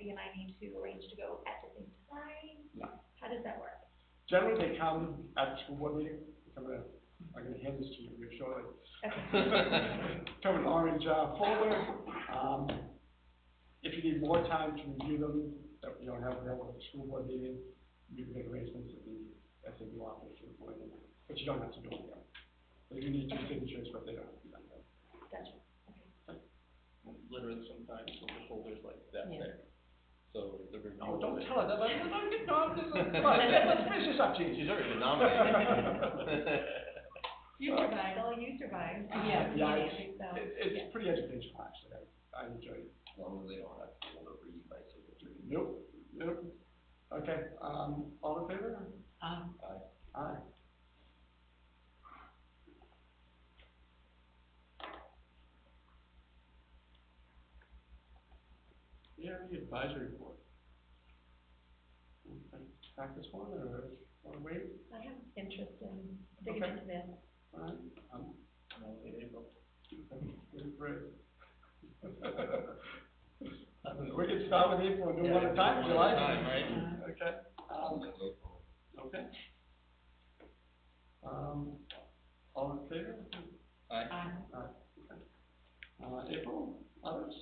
you and I need to arrange to go at the same time? No. How does that work? Generally, they come at the school board meeting, I'm gonna, I'm gonna hand this to you here shortly. Okay. Come in orange uh, folder, um, if you need more time to review them, that you don't have available at the school board meeting, you can arrange them to the SAB office or whatever, but you don't have to do it there. They do need two signatures, but they don't have to be done there. Gotcha. literally sometimes with the folders like that Yeah. thick. So the review. Oh, of don't it- tell her that, like, no, no, no, no, come on, let's finish this up, Gene. She's already been nominated. You survived, all Oh, you survived. Yeah. Yeah, Immediately, so, It, yeah. it's pretty educational, actually, I, I enjoy it. As long as they don't have to hold over you by signature. Nope, nope. Okay, um, all in favor? Um, Aye. Do you have any advisory board? Want to Tack this one, or, or wait, I have interest in digging Okay. into this. alright, um, And I'll say April. great. We can start with April and do one at a time, if you One like. at a time, right? Okay, um, okay. Um, all in favor? Aye. um, Uh, April, others?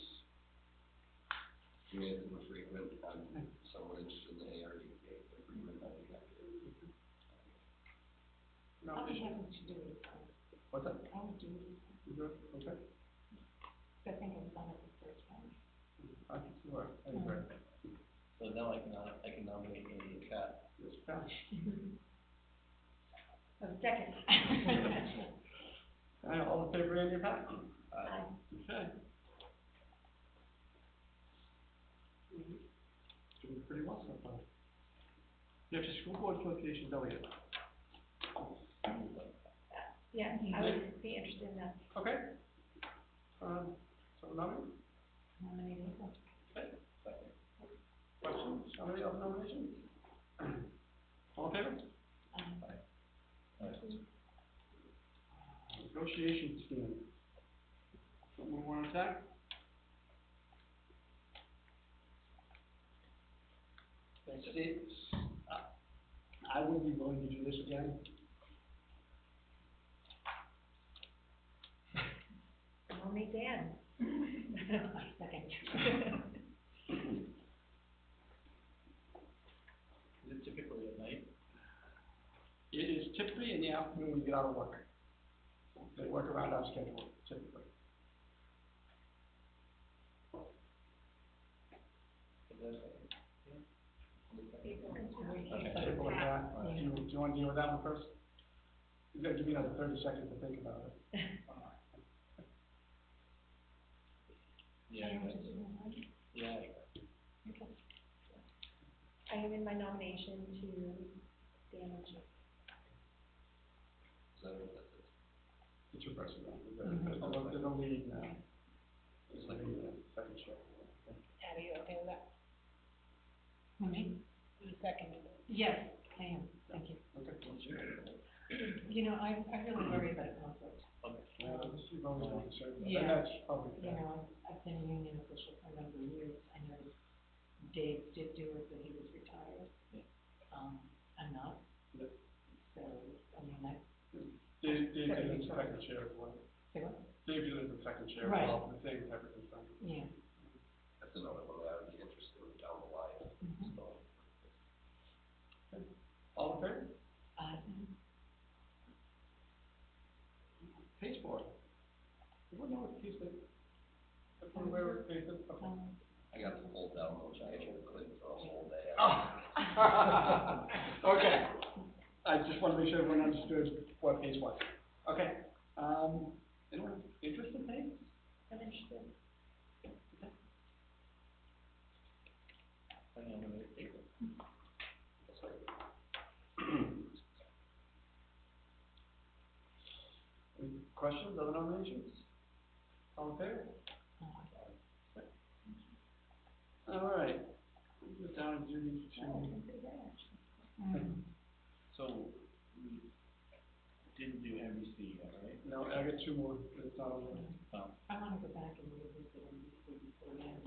You made them frequent, I'm somewhat interested in the ARU game, but frequent, I think that is. No. I'll be happy to do it, What's that? I'll do it, You good? Okay. I think I've done it the first time. I can see where, I agree. So now I can, nom- I can nominate Amy and Kat. Yes, Pat. So second. And all in favor, Andy and Pat? Aye. Okay. Doing pretty well so far. You have your school board association delegate. Yeah, I would be interested in that. Okay. Um, so nominate, Nominated. Second. questions, nominate, other nominations? All in favor? Um, Negotiation team. Someone wanna attack? Thanks. I would be willing to do this again. I'll meet Dan. Second. Is it typically at night? It is typically in the afternoon when you get out of work. They work around our schedule typically. Is that right? Okay, April and Pat, do you, do you wanna deal with that one first? You gotta give me another thirty seconds to think about it. Yeah. Can I exactly. just do one? Yeah. Okay. I am in my nomination to Dan and Jim. Is that what that is? It's your first one. Mhm. There's no, there's no lead now. It's like a second show. Are you okay with that? Me? You seconded it. Yes, I am, thank you. Okay. You know, I, I really worry about conflict, Well, this is only one, so, and Yeah. that's probably you fair. know, I've been a union official for a number of years, I know Dave did do it, but he was retired. Yeah. Um, I'm not. Yeah. So, I mean, I, Dave, Dave did the second chair as well. say what? Dave did the second chair as Right. well, the same type of concern. Yeah. That's another one that I would be interested in down the line, Mhm. so. All in favor? Uh, Pasteboard. Everyone know what pasteboard? Everyone aware what pasteboard? Okay. um, I got the whole down, which I actually clicked for a whole day. Oh. Okay. I just wanna make sure everyone understood what page was. Okay, um, anyone interested in page? I'm interested. I nominate April. Any questions, other nominations? All in favor? uh, All right. We'll go down and do these Oh, two. I'm pretty good, actually. mm. So we didn't do MBC yet, right? No, I got two more, but it's not on I wanna go back and